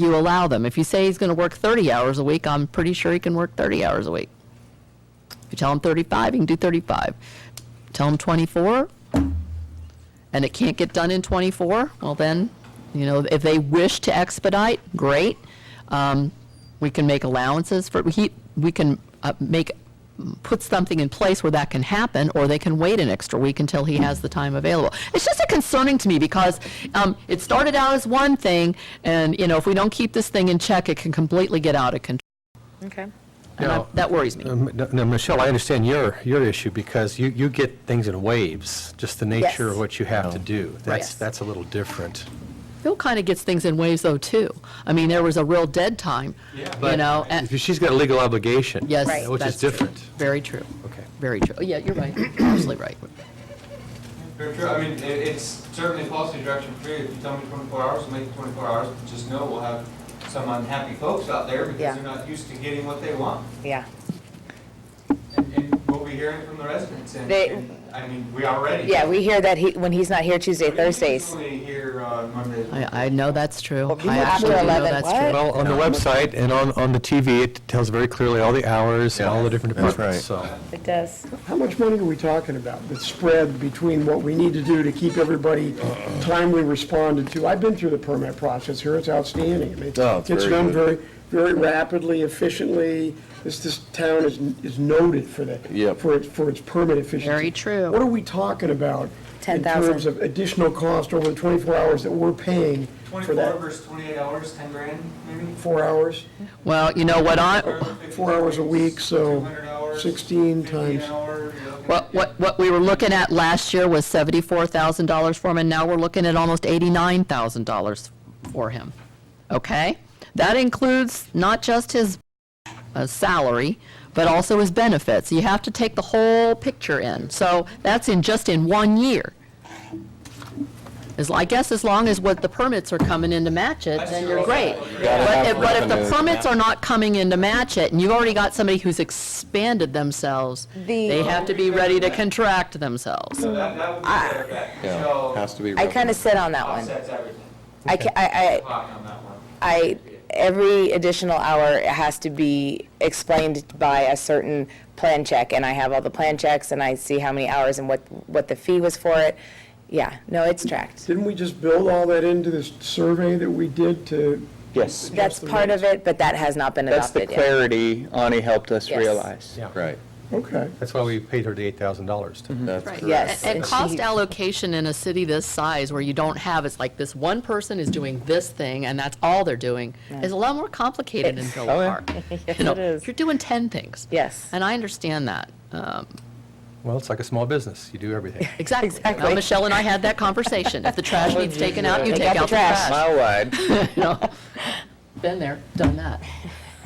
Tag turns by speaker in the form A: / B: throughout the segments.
A: you allow them. If you say he's going to work 30 hours a week, I'm pretty sure he can work 30 hours a week. If you tell him 35, he can do 35. Tell him 24, and it can't get done in 24, well then, you know, if they wish to expedite, great. Um, We can make allowances for, he, we can uh, make, put something in place where that can happen, or they can wait an extra week until he has the time available. It's just concerning to me because um, it started out as one thing, and, you know, if we don't keep this thing in check, it can completely get out of control.
B: Okay.
A: And I-
C: Now-
A: that worries me.
C: Um, no- Now, Michelle, I understand your, your issue because you, you get things in waves, just the nature
B: Yes.
C: of what you have to do.
A: Yes.
C: That's, that's a little different.
A: Bill kind of gets things in waves, though, too. I mean, there was a real dead time, you know, and-
C: If She's got a legal obligation.
A: yes,
B: Right.
C: Which
A: that's
C: is
A: true.
C: different.
A: Very true.
C: Okay.
A: Very true. Oh, Yeah, you're right. You're Absolutely right.
D: Very true. I mean, it, it's certainly policy direction for you. If you tell me twenty-four hours, we'll make it twenty-four hours. Just know we'll have some unhappy folks out there
B: Yeah.
D: because they're not used to getting what they want.
B: Yeah.
D: And, and we'll be hearing from the residents and,
B: They-
D: and, I mean, we already.
B: Yeah, we hear that he, when he's not here Tuesday, Thursdays.
D: We usually hear uh, on Mondays.
A: I, I know that's true.
B: Well,
A: I
B: after
A: absolutely know
B: 11,
A: that's
B: what?
A: true.
C: Well, on the website and on, on the TV, it tells very clearly all the hours and all the different
E: That's
C: departments, so.
B: It does.
F: How much money are we talking about, the spread between what we need to do to keep everybody
E: Uh-uh.
F: timely responded to? I've been through the permit process here, it's outstanding. I mean,
E: Oh, it's
F: Gets
E: very
F: done very,
E: good.
F: very rapidly, efficiently, this, this town is, is noted for that.
E: Yep.
F: For its, for its permit efficiency.
A: Very true.
F: What are we talking about? In
B: 10,000.
F: terms of additional cost over the 24 hours that we're paying for
D: Twenty-four
F: that,
D: versus twenty-eight hours, ten grand maybe?
F: four hours?
A: Well, you know what I,
F: Four hours a week, so
D: 200 hours,
F: 16
D: 50 an
F: times-
D: hour, you're looking
A: what,
D: at-
A: what, what we were looking at last year was seventy-four thousand dollars for him, and now we're looking at almost eighty-nine thousand dollars for him. Okay? That includes not just his uh, salary, but also his benefits. You have to take the whole picture in. So that's in, just in one year. As, I guess as long as what the permits are coming in to match it, then you're great.
E: Gotta
A: But
E: have
A: if, but if the
E: revenue.
A: permits are not coming in to match it, and you've already got somebody who's expanded themselves,
B: The-
A: they have to be ready to contract themselves.
D: So that, that would be fair, that,
E: Yeah, has
D: so
E: to be.
B: I kind of sit on that one.
D: offsets everything.
B: I, ca- I, I,
D: Pocket on that one.
B: I, every additional hour has to be explained by a certain plan check, and I have all the plan checks, and I see how many hours and what, what the fee was for it. Yeah, no, it's tracked.
F: Didn't we just build all that into this survey that we did to
G: Yes,
B: That's
F: the
B: part of it, but that has not been
G: that's the
B: adopted yet.
G: clarity Ani helped us
B: Yes.
G: realize.
C: Yeah.
E: Right,
F: Okay.
C: That's why we paid her the $8,000. to-
A: Mm-hmm.
E: that's correct.
B: Yes.
A: And
B: and
A: cost
B: she-
A: allocation in a city this size where you don't have, it's like this one person is doing this thing and that's all they're doing, is a lot more complicated in Villa
G: Oh, yeah.
A: Park.
B: Yes,
A: You know,
B: it is.
A: You're doing 10 things.
B: Yes.
A: And I understand that. Um,
C: Well, it's like a small business. You do everything.
A: Exactly. Now,
B: Exactly.
A: Michelle and I had that conversation. If the trash needs taken out, you
B: Take
A: take out the trash.
G: Mile wide.
A: You know? Been there, done that.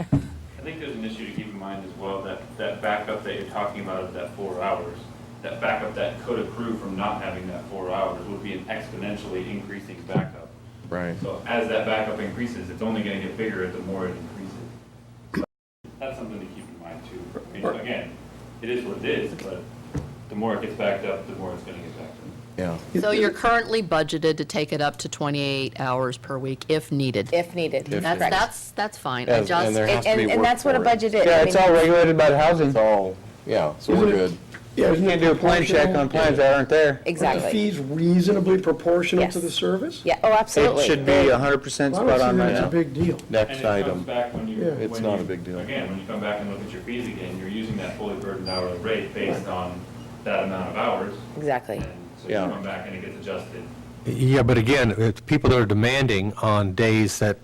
H: I think there's an issue to keep in mind as well, that, that backup that you're talking about of that four hours, that backup that could accrue from not having that four hours would be an exponentially increasing backup.
E: Right.
H: So as that backup increases, it's only gonna get bigger the more it increases. So That's something to keep in mind too. I mean, again, it is what it is, but the more it gets backed up, the more it's gonna get backed up.
E: Yeah.
A: So you're currently budgeted to take it up to 28 hours per week if needed.
B: If needed.
A: That's,
B: Correct.
A: that's, that's fine. I
E: Yes, and
A: just,
E: there has
B: And,
E: to be
B: and- and
E: work
B: that's what a
E: for it.
B: budget is. I
G: Yeah, it's
B: mean,
G: all regulated by the housing.
E: It's all, yeah, so we're
F: Isn't it-
E: good.
F: Yeah,
G: You
F: isn't
G: can't do a plan check on plans that aren't there.
F: Are the
B: Exactly.
F: fees reasonably proportional to
B: Yes.
F: the service?
B: Yeah, oh,
G: It
B: absolutely.
G: should
B: They-
G: be hundred percent
F: I
G: spot
F: don't see
G: on
F: that
G: right
F: as a
G: now.
F: big deal.
E: Next
H: And it comes
E: item.
H: back when you.
F: Yeah.
E: It's
H: when
E: not
H: you-
E: a big deal.
H: Again, when you come back and look at your fees again, you're using that fully burdened hourly rate based on that amount of hours.
B: Exactly.
H: And so you
E: Yeah.
H: come back and it gets adjusted.
C: Yeah, but again, it's people that are demanding on days that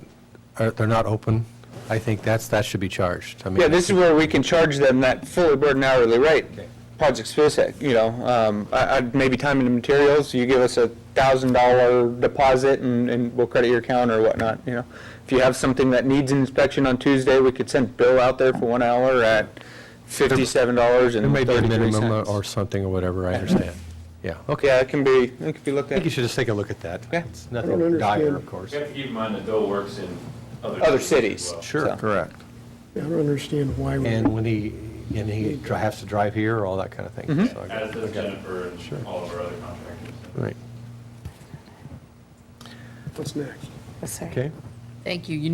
C: are, they're not open, I think that's, that should be charged. I mean,
G: Yeah, this is where we can charge them that fully burdened hourly rate.
C: Okay.
G: Project specific, you know, um, I, I'd maybe time and materials, you give us a thousand dollar deposit and, and we'll credit your account or whatnot, you know. If you have something that needs an inspection on Tuesday, we could send Bill out there for one hour at fifty-seven dollars
C: There
G: and
C: may be a
G: thirty-three
C: minimum or-
G: cents.
C: or something or whatever, I understand. Yeah, okay.
G: Yeah, it can be, it can be looked
C: I think
G: at.
C: you should just take a look at that.
G: Yeah.
C: It's
F: I don't
C: nothing
F: understand.
C: dire, of course.
H: You have to keep in mind that Dole works in other.
G: Other
H: as
G: cities.
H: well.
G: so.
E: Correct.
F: I don't understand why we,
C: And when he, and he dri- has to drive here, all that kind of thing.
G: Mm-hmm.
C: So I got-
H: As does
C: I got it.
H: Jennifer and all of our other contractors.
C: Right,
F: what's next?
B: Sorry.
C: okay.
A: thank you. You